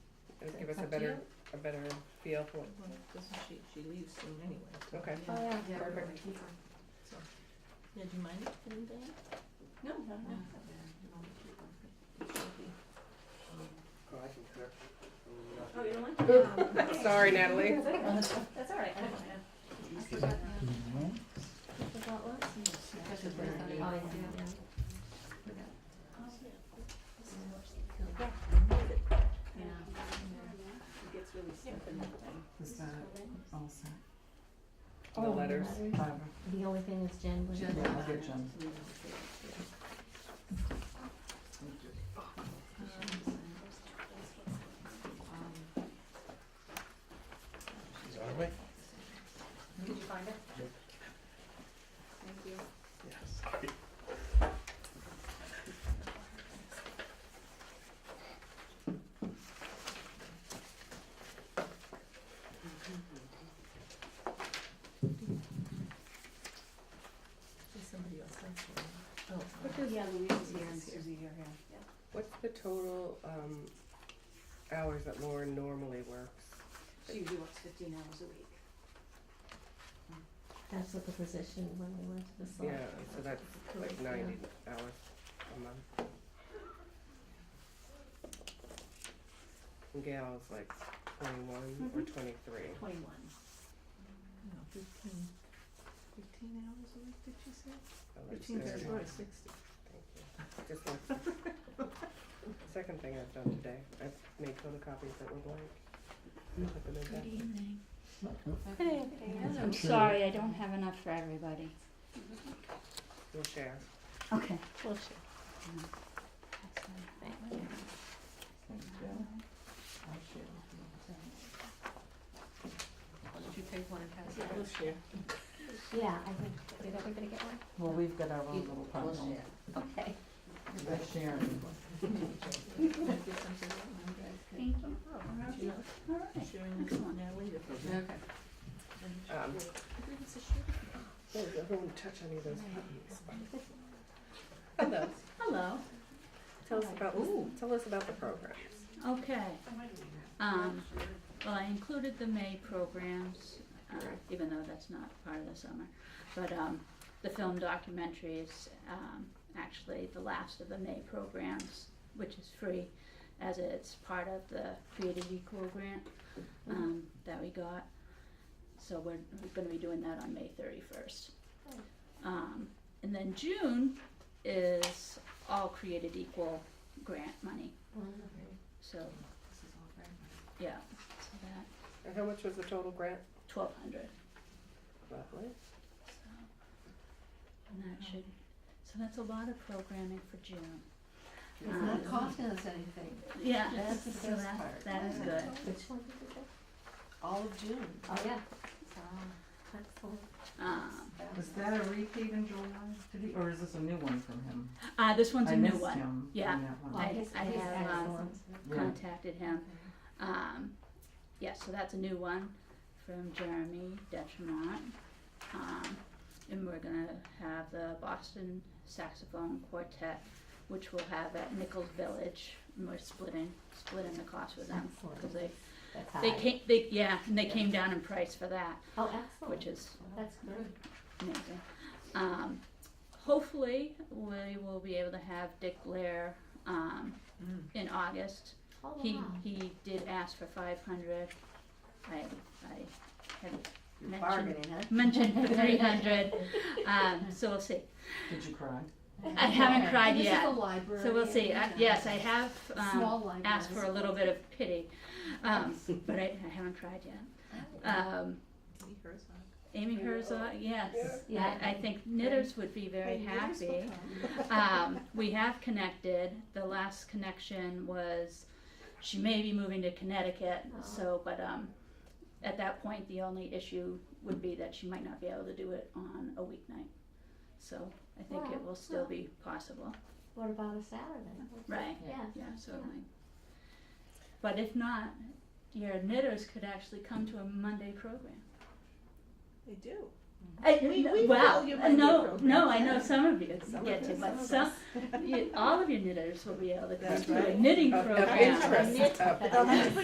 to give us a Up to better, you. a better feel for, Well, doesn't she, she leaves soon anyway, so. Okay. Yeah. Oh, yeah. Yeah, we're Perfect. gonna keep her. Yeah, do you mind if anything? No, no, no. Mm. Oh, I can correct. it. Oh, you don't like it? Oh, Um, sorry Natalie. That's okay. That's all right, I don't mind. I forgot now. Forgot what? That's a burn. Oh, Yeah. yeah. Yeah. It gets really stiff in that thing. Is that all set? Oh, The letters. Barbara? The only thing is Jen was. Yeah, I'll get Jen. She's on her way. Did you find it? Yep. Thank you. Yes. There's somebody else that's one. Oh, What does- Yeah, Louise is here and Suzie. here, yeah. What's the total, um, hours that Lauren normally works? She usually works fifteen hours a week. That's what the position when we went to the Yeah, select. so that's like Yeah. ninety hours a month. And Gail's like twenty-one Mm-hmm. or Mhm. twenty-three. Twenty-one. no, fifteen, fifteen hours a week, did she say? So that's Fifteen very times high. four is sixty. Thank you. Just like, second thing I've done today, I've made photocopies that were blank. Hmm. Put them in back. I'm sorry, I don't have enough for everybody. We'll share. Okay. Well, Thanks, Jill. I'll share with you. Why don't you take one and pass Yeah, it? We'll share. Yeah, I think, did everybody get one? Well, we've got our own little We'll pile. share. Okay. They're sharing. Might be something that one guy can- Thank you. Oh, you know, All right. sharing this one now, will you? Okay. And share. Um, I think it's a share. Oh, everyone touch any of those buttons. Hello. Hello. Tell us about, tell us about the programs. Okay. Um, well, I included the May programs, uh, even though that's not part of the summer. But, um, the film documentary is, um, actually the last of the May programs, which is free as it's part of the Creative Equal grant, um, that we got. So we're, we're gonna be doing that on May thirty-first. Um, and then June is all Created Equal grant money, so, This is all very yeah, so that. And how much was the total grant? twelve hundred. Lovely. So, and that should, so that's a lot of programming for June. It's Um, not costing us anything, Yeah, That's the so best that- part. That is Yeah. good. Which one did you get? all of June. Oh, yeah, Wow. excellent. Um, Was that a repeat in July? Did he, or is this a new one from him? uh, this one's I a new missed one. him Yeah. on that one. I- Well, I he's have, um, excellent. Yeah. Contacted him. Um, yeah, so that's a new one from Jeremy Detremont. Um, and we're gonna have the Boston Saxophone Quartet, which we'll have at Nichols Village. And we're splitting, splitting the cost with them, cause they, That's high. they came, they, yeah, and they came down in price for that. Oh, excellent. which is That's great. amazing. Um, hopefully, we will be able to have Dick Blair um, Mm. in August. Oh, He wow. he did ask for 500. I I had You're mentioned bargaining, huh? mentioned for 300. um, so we'll see. Did you cry? I haven't cried This is yet. a library. So we'll see. I, and, uh, yes, I have Small um, libraries. asked for a little bit of pity, um, but I, I haven't cried yet. Um, Lee Herzog. Amy Herzog, yes. Yeah. I, I think knitters would be very Hey, happy. yours will come. um, we have connected. The last connection was she may be moving to Connecticut. Oh. So, but um, at that point, the only issue would be that she might not be able to do it on a weeknight. So I think it Well, will still well. be possible. What about a Saturday? Right. Yeah. Yeah, so Yeah. like, but if not, your knitters could actually come to a Monday program. They do. I, We- we wow, follow your uh, Monday no, programs, no, I yeah. know some of you Some get of to, us, but some some, you, all of your knitters will be able to come That's to a right. knitting Of- of program. interest, of That's Oh, that's